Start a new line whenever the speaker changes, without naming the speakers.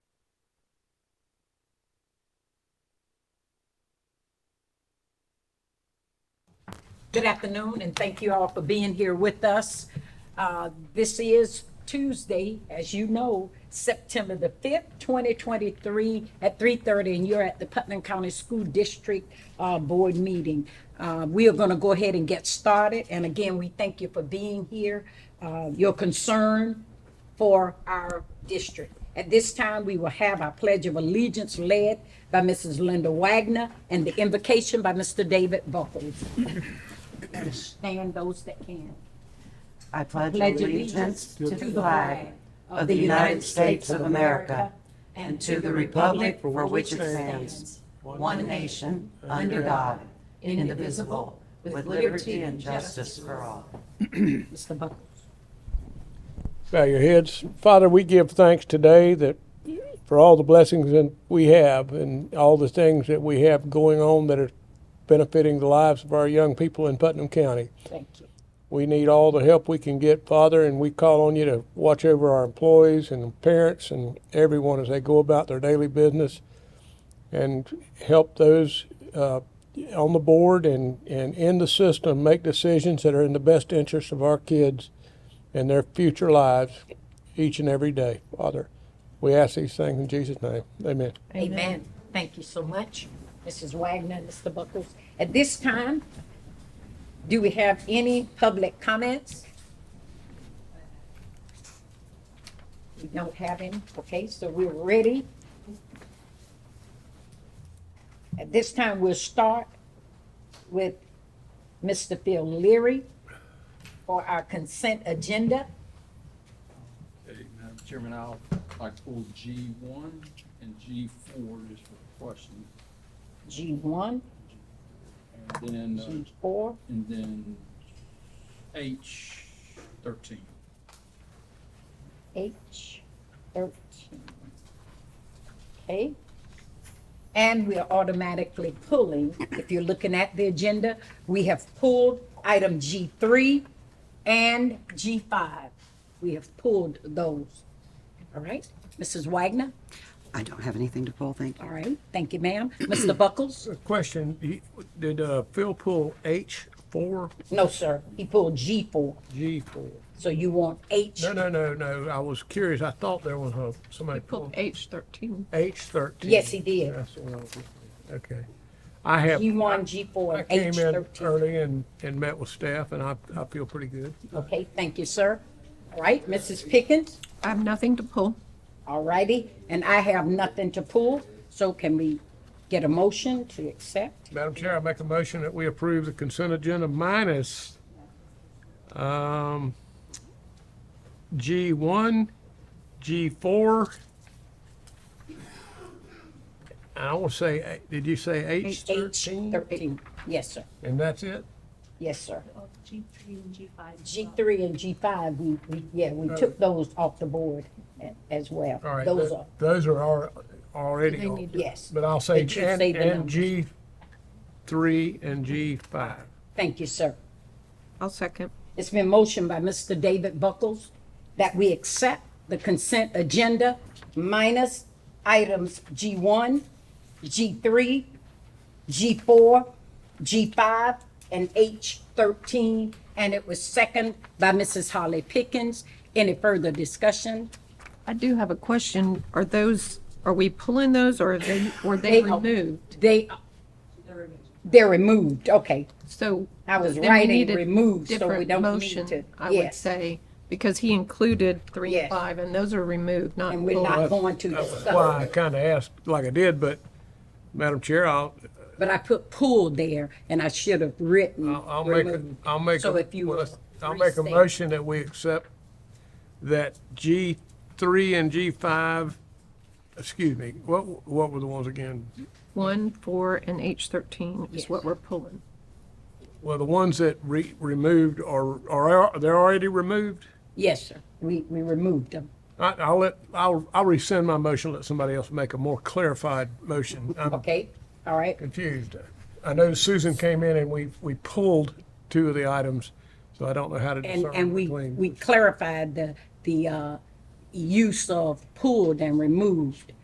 Good afternoon, and thank you all for being here with us. Uh, This is Tuesday, as you know, September the 5th, 2023, at 3:30, and you're at the Putnam County School District uh, Board meeting. Uh, We are going to go ahead and get started, and again, we thank you for being here, uh, your concern for our district. At this time, we will have our Pledge of Allegiance led by Mrs. Linda Wagner and the invocation by Mr. David Buckles. Stand those that can.
I pledge
Pledge allegiance to the flag
of the United States of America and to the republic for which it stands, one nation, under God, indivisible, with liberty and justice for all.
Mr. Buckles.
Bow your heads. Father, we give thanks today that for all the blessings that we have and all the things that we have going on that are benefiting the lives of our young people in Putnam County.
Thank you.
We need all the help we can get, Father, and we call on you to watch over our employees and parents and everyone as they go about their daily business and help those uh, on the board and, and in the system make decisions that are in the best interest of our kids and their future lives each and every day, Father. We ask these things in Jesus' name. Amen.
Amen. Thank you so much, Mrs. Wagner and Mr. Buckles. At this time, do we have any public comments? We don't have any. Okay, so we're ready. At this time, we'll start with Mr. Phil Leary for our consent agenda.
Okay, Madam Chairman, I'll, like pull G one and G four just for questions.
G1,
And then,
G4,
uh, and then H thirteen.
H thirteen. Okay? And we are automatically pulling, if you're looking at the agenda, we have pulled item G three and G five. We have pulled those. All right, Mrs. Wagner,
I don't have anything to pull, thank you.
all right, thank you, ma'am. Mr. Buckles?
Question, did uh, Phil pull H4?
No, sir, he pulled G four,
G4.
so you want H.
No, no, no, no. I was curious. I thought there was a, somebody pulled
Pulled H thirteen.
H thirteen.
Yes, he did.
That's what I was looking at. Okay. I have,
G one, G four,
I
and H
came in
thirteen.
early and, and met with staff and I, I feel pretty good.
Okay, thank you, sir. All right, Mrs. Pickens?
I have nothing to pull.
All righty, and I have nothing to pull, so can we get a motion to accept?
Madam Chair, I make a motion that we approve the consent agenda minus, um, G one, G four. I want to say, did you say H
H
thirteen?
thirteen, yes, sir,
And that's it?
yes, sir.
G three and G five.
G three and G five, we, we, yeah, we took those off the board a- as well.
All right,
Those
tho-
are,
those are al- already,
They
on.
need to-
yes,
but I'll say,
But you
and,
say the
and
numbers.
G three and G five.
thank you, sir.
I'll second.
It's been motioned by Mr. David Buckles that we accept the consent agenda minus items G1, G3, G4, G5, and H13. And it was second by Mrs. Holly Pickens. Any further discussion?
I do have a question. Are those, are we pulling those or are they, were
They
they
are.
removed?
They, they're removed, okay.
So.
I was
then we
writing
need a
removed, so we
different
don't need
motion,
to-
I would
yes.
say, because he included three
Yes.
and five and those are removed, not
And we're
pulled.
Oh,
not going to
Well,
discuss.
I kind of asked like I did, but Madam Chair, I'll,
But I put pull there and I should have written.
I'll- I'll make, a-
removed.
I'll make,
So if
a-
you
well,
will
let's- I'll make a
restate.
motion that we accept that G three and G five, excuse me, what, what were the ones again?
One, four, and H thirteen
Yes.
is what we're pulling.
Well, the ones that re, removed are, are, they're already removed?
Yes, sir, we, we removed them.
I, I'll let, I'll, I'll rescind my motion, let somebody else make a more clarified motion. I'm
Okay, all right,
confused. I know Susan came in and we, we pulled two of the items, so I don't know how to
and,
discern
and we,
between.
we clarified the, the, uh, use of pulled and removed.